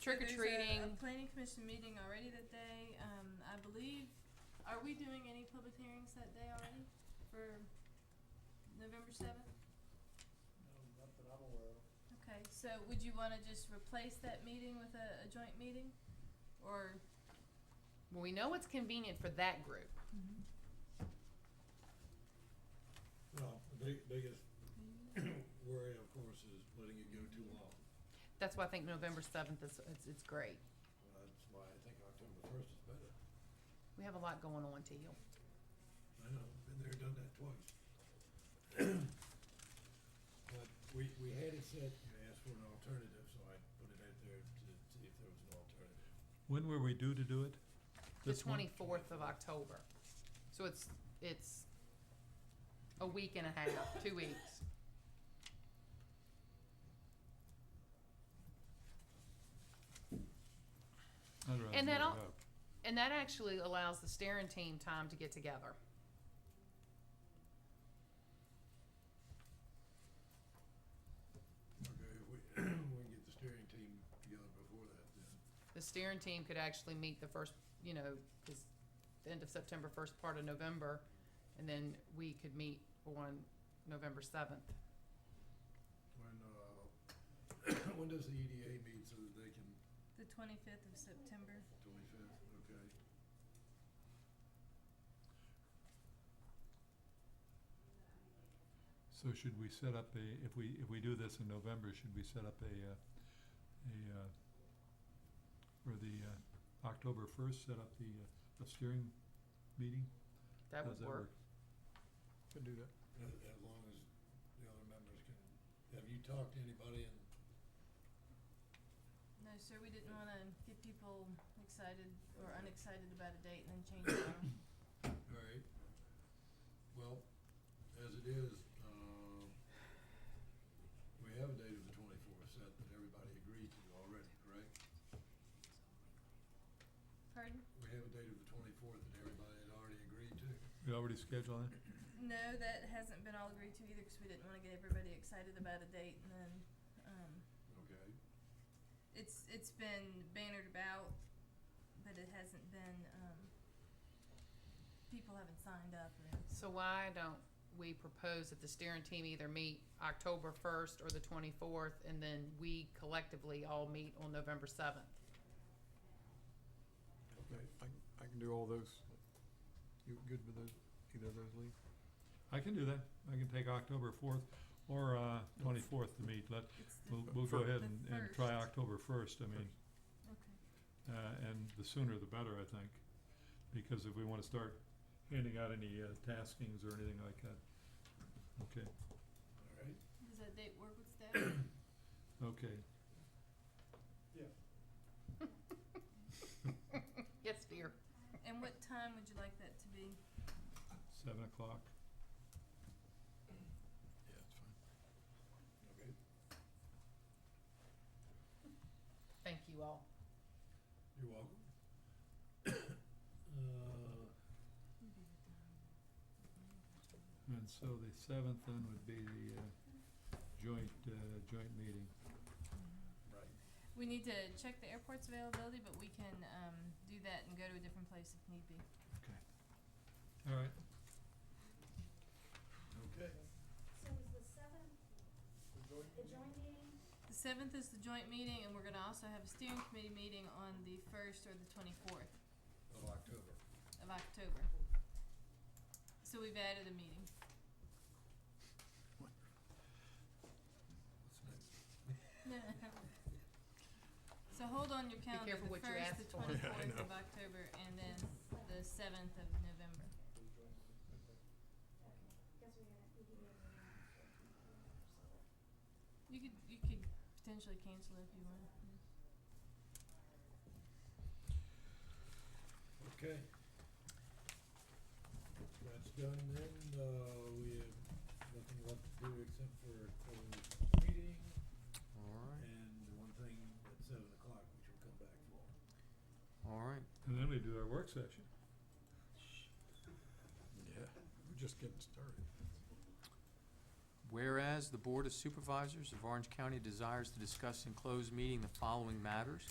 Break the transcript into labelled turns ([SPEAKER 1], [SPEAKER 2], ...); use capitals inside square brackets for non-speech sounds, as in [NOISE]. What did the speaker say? [SPEAKER 1] Trick or
[SPEAKER 2] there's a-
[SPEAKER 1] treating.
[SPEAKER 2] a Planning commission meeting already that day, um, I believe, are we doing any public hearings that day already for November seventh?
[SPEAKER 3] No, not that I'm aware of.
[SPEAKER 2] Okay, so would you wanna just replace that meeting with a, a joint meeting? Or,
[SPEAKER 1] Well, we know what's convenient for that group.
[SPEAKER 4] Well, the big, biggest [CLEARS THROAT] worry, of course, is letting it go too long.
[SPEAKER 1] That's why I think November seventh is, it's, it's great.
[SPEAKER 4] Well, That's why I think October first is better.
[SPEAKER 1] We have a lot going on, Teal.
[SPEAKER 4] I know, been there, done that twice. [CLEARS THROAT] But we, we had it set, you asked for an alternative, so I put it out there to see if there was an alternative.
[SPEAKER 5] When were we due to do it?
[SPEAKER 1] The
[SPEAKER 5] This month?
[SPEAKER 1] twenty-fourth of October. So it's, it's a week and a half, two weeks.
[SPEAKER 5] I'd rather
[SPEAKER 1] And
[SPEAKER 5] do
[SPEAKER 1] then
[SPEAKER 5] it
[SPEAKER 1] I'll-
[SPEAKER 5] up.
[SPEAKER 1] And that actually allows the steering team time to get together.
[SPEAKER 4] Okay, if we, [CLEARS THROAT] we can get the steering team together before that, then.
[SPEAKER 1] The steering team could actually meet the first, you know, 'cause the end of September, first part of November, and then we could meet on November seventh.
[SPEAKER 4] When, uh, [CLEARS THROAT] when does the EDA meet so that they can,
[SPEAKER 2] the twenty-fifth of September?
[SPEAKER 4] twenty-fifth, okay?
[SPEAKER 5] So should we set up a, if we, if we do this in November, should we set up a, uh, a, uh, for the, uh, October first, set up the, uh, a steering meeting?
[SPEAKER 1] That
[SPEAKER 5] How
[SPEAKER 1] would
[SPEAKER 5] does
[SPEAKER 1] work.
[SPEAKER 5] Could do that.
[SPEAKER 4] As, as long as the other members can, have you talked to anybody and
[SPEAKER 2] No, sir, we didn't wanna get people excited or unexcited about a date and then change it.
[SPEAKER 4] All right. Well, as it is, um, we have a date of the twenty-fourth set that everybody agreed to already, correct?
[SPEAKER 2] Pardon?
[SPEAKER 4] We have a date of the twenty-fourth that everybody had already agreed to.
[SPEAKER 5] We already scheduled it?
[SPEAKER 2] No, that hasn't been all agreed to either, cause we didn't wanna get everybody excited about a date and then, um,
[SPEAKER 4] Okay,
[SPEAKER 2] it's, it's been bannered about, but it hasn't been, um, people haven't signed up or anything.
[SPEAKER 1] So why don't we propose that the steering team either meet October first or the twenty-fourth, and then we collectively all meet on November seventh?
[SPEAKER 4] okay.
[SPEAKER 6] I, can- I can do all those. You good with those, either of those, Lee?
[SPEAKER 5] I can do that. I can take October fourth or, uh, twenty-fourth to meet. Let,
[SPEAKER 2] It's the,
[SPEAKER 5] we'll, we'll go
[SPEAKER 6] Fir-
[SPEAKER 5] ahead and,
[SPEAKER 2] The
[SPEAKER 5] and try
[SPEAKER 2] first.
[SPEAKER 5] October first, I mean.
[SPEAKER 2] okay,
[SPEAKER 5] Uh, and the sooner the better, I think, because if we wanna start handing out any, uh, taskings or anything like that. Okay,
[SPEAKER 4] All right.
[SPEAKER 2] does that date work with staff?
[SPEAKER 5] okay.
[SPEAKER 1] Yes, dear.
[SPEAKER 2] [COUGHS] And what time would you like that to be?
[SPEAKER 5] Seven o'clock.
[SPEAKER 4] Yeah, it's fine. Okay.
[SPEAKER 1] Thank you all.
[SPEAKER 4] You're welcome. [COUGHS] Uh,
[SPEAKER 5] And so the seventh then would be the, uh, joint, uh, joint meeting.
[SPEAKER 4] right.
[SPEAKER 2] We need to check the airport's availability, but we can um, do that and go to a different place if need be.
[SPEAKER 5] All right,
[SPEAKER 4] Okay.
[SPEAKER 7] So is the seventh, the joint meeting?
[SPEAKER 2] The seventh is the joint meeting, and we're gonna also have a steering committee meeting on the first or the twenty-fourth
[SPEAKER 4] Of October.
[SPEAKER 2] of October. So we've added a meeting.
[SPEAKER 4] What's next?
[SPEAKER 2] So hold on your
[SPEAKER 1] careful
[SPEAKER 2] calendar, the
[SPEAKER 1] what you
[SPEAKER 2] first,
[SPEAKER 1] ask
[SPEAKER 2] the
[SPEAKER 1] for. [LAUGHS] Yeah, I
[SPEAKER 2] twenty-fourth
[SPEAKER 6] know.
[SPEAKER 2] of October, and then the seventh of November.
[SPEAKER 7] Because we gotta, we do it on the
[SPEAKER 2] You could, you could potentially cancel it if you want. yeah.
[SPEAKER 4] Okay. That's done then, uh, we have nothing left to do except for closed meeting
[SPEAKER 6] Alright,
[SPEAKER 4] and the one thing at seven o'clock, which we'll come back for.
[SPEAKER 6] alright.
[SPEAKER 5] and then we do our work session.
[SPEAKER 6] Yeah, we're just getting started. Whereas the Board of Supervisors of Orange County desires to discuss in closed meeting the following matters.